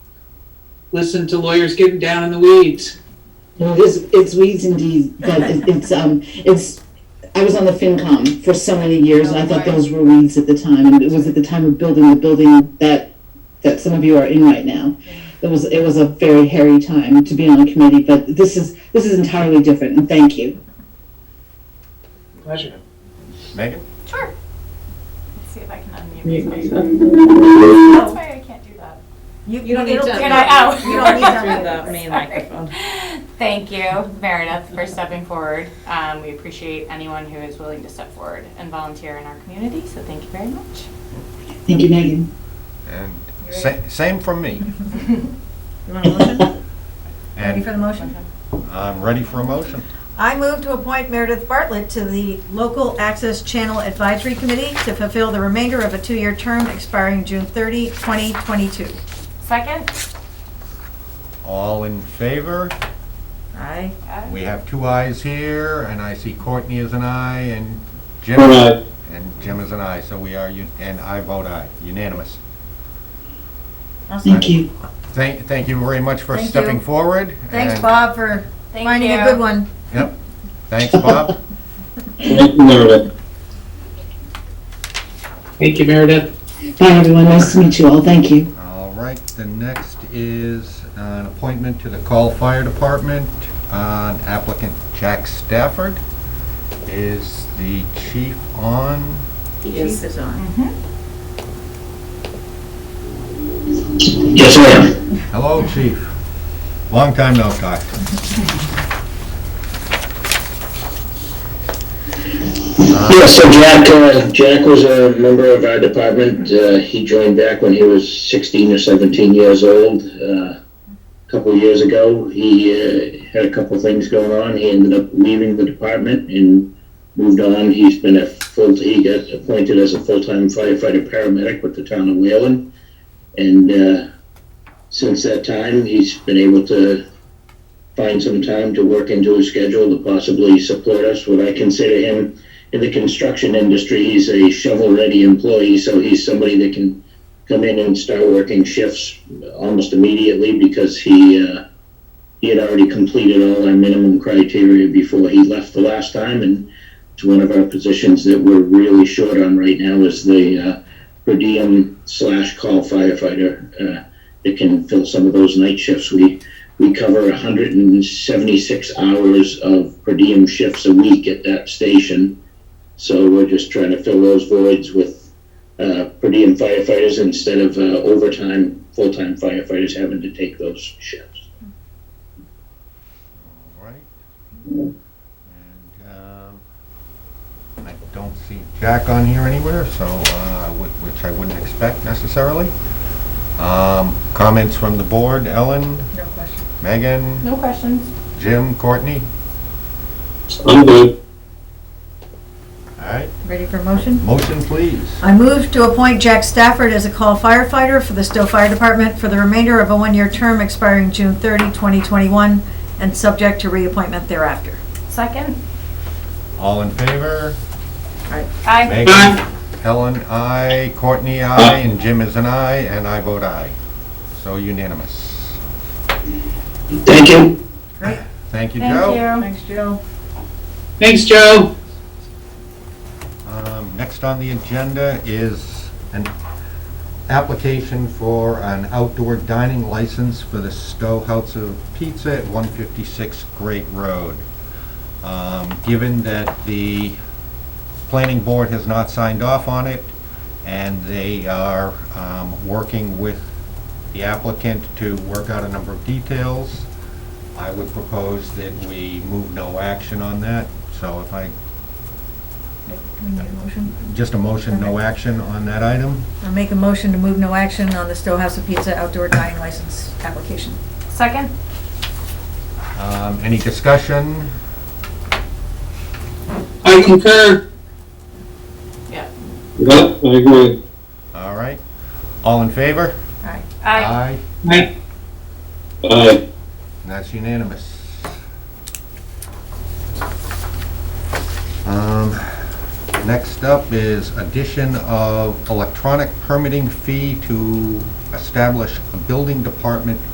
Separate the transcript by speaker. Speaker 1: listen to lawyers getting down in the weeds.
Speaker 2: It's, it's weeds indeed, but it- it's, um, it's, I was on the FinCom for so many years, and I thought those were weeds at the time, and it was at the time of building the building that, that some of you are in right now. It was, it was a very hairy time to be on a committee, but this is, this is entirely different, and thank you.
Speaker 1: Pleasure.
Speaker 3: Megan?
Speaker 4: Sure. Let's see if I can unmute
Speaker 5: You-
Speaker 4: myself. That's why I can't do that.
Speaker 5: You don't need to.
Speaker 4: It'll get out.
Speaker 5: You don't need to do the main microphone.
Speaker 4: Thank you, Meredith, for stepping forward. Um, we appreciate anyone who is willing to step forward and volunteer in our community, so thank you very much.
Speaker 2: Thank you, Megan.
Speaker 3: And sa- same from me.
Speaker 5: You want a motion?
Speaker 6: Ready for the
Speaker 3: And
Speaker 6: motion?
Speaker 3: I'm ready for a motion.
Speaker 6: I move to appoint Meredith Bartlett to the Local Access Channel Advisory Committee to fulfill the remainder of a two-year term expiring June 30, 2022.
Speaker 4: Second?
Speaker 3: All in favor?
Speaker 6: Aye.
Speaker 4: Uh,
Speaker 3: We have two ayes here, and I see Courtney is an aye, and Jim.
Speaker 7: All right.
Speaker 3: And Jim is an aye, so we are, un- and I vote aye, unanimous.
Speaker 2: Thank you.
Speaker 3: Thank, thank you very much for
Speaker 6: Thank you.
Speaker 3: stepping forward.
Speaker 6: Thanks,
Speaker 3: and-
Speaker 6: Bob, for
Speaker 4: Thank
Speaker 6: finding a
Speaker 4: you.
Speaker 6: good one.
Speaker 3: Yep, thanks, Bob.
Speaker 7: Thank you, Meredith.
Speaker 1: Thank you, Meredith.
Speaker 2: Bye, everyone, nice to meet you all, thank you.
Speaker 3: All right, the next is an appointment to the Call Fire Department. Uh, Applicant Jack Stafford. Is the chief on?
Speaker 5: Chief is on.
Speaker 7: Mm-hmm. Yes, ma'am.
Speaker 3: Hello, chief. Long time no talk.
Speaker 7: Yes, so Jack, uh, Jack was a member of our department. Uh, he joined back when he was 16 or 17 years old. Uh, a couple of years ago, he uh, had a couple of things going on. He ended up leaving the department and moved on. He's been a full. He got appointed as a full-time firefighter paramedic with the town of Whalen, and uh, since that time, he's been able to find some time to work into his schedule to possibly support us. What I consider him in the construction industry, he's a shovel-ready employee, so he's somebody that can come in and start working shifts almost immediately because he, uh, he had already completed all our minimum criteria before he left the last time, and it's one of our positions that we're really short on right now is the, uh, per diem slash call firefighter, uh, that can fill some of those night shifts. We, we cover hundred and seventy-six hours of per diem shifts a week at that station. So we're just trying to fill those voids with uh, per diem firefighters instead of uh, overtime, full-time firefighters having to take those shifts.
Speaker 3: All right. And um, I don't see Jack on here anywhere, so, uh, whi- which I wouldn't expect necessarily. Um, Comments from the board, Ellen,
Speaker 6: No question.
Speaker 3: Megan,
Speaker 4: No questions.
Speaker 3: Jim, Courtney?
Speaker 7: I'm good.
Speaker 3: All right,
Speaker 6: Ready for a motion?
Speaker 3: motion please.
Speaker 6: I move to appoint Jack Stafford as a call firefighter for the Stowe Fire Department for the remainder of a one-year term expiring June 30, 2021, and subject to reappointment thereafter.
Speaker 4: Second?
Speaker 3: All in favor?
Speaker 4: Aye.
Speaker 3: Megan, Helen, aye. Courtney, aye. And Jim is an aye, and I vote aye. So unanimous.
Speaker 7: Thank you.
Speaker 3: Thank you,
Speaker 4: Thank
Speaker 3: Joe.
Speaker 4: you.
Speaker 6: Thanks, Joe.
Speaker 1: Thanks, Joe.
Speaker 3: Um, Next on the agenda is an application for an outdoor dining license for the Stowe House of Pizza at 156 Great Road. Um, Given that the planning board has not signed off on it, and they are um, working with the applicant to work out a number of details, I would propose that we move no action on that. So if I
Speaker 6: Do we need a motion?
Speaker 3: just a motion, no action on that item.
Speaker 6: I make a motion to move no action on the Stowe House of Pizza outdoor dining license application.
Speaker 4: Second?
Speaker 3: Um, Any discussion?
Speaker 1: I concur.
Speaker 7: Yep, I agree.
Speaker 3: All right. All in favor?
Speaker 4: Aye.
Speaker 1: Aye.
Speaker 7: Aye.
Speaker 3: And that's unanimous. Um, Next up is addition of electronic permitting fee to establish a building department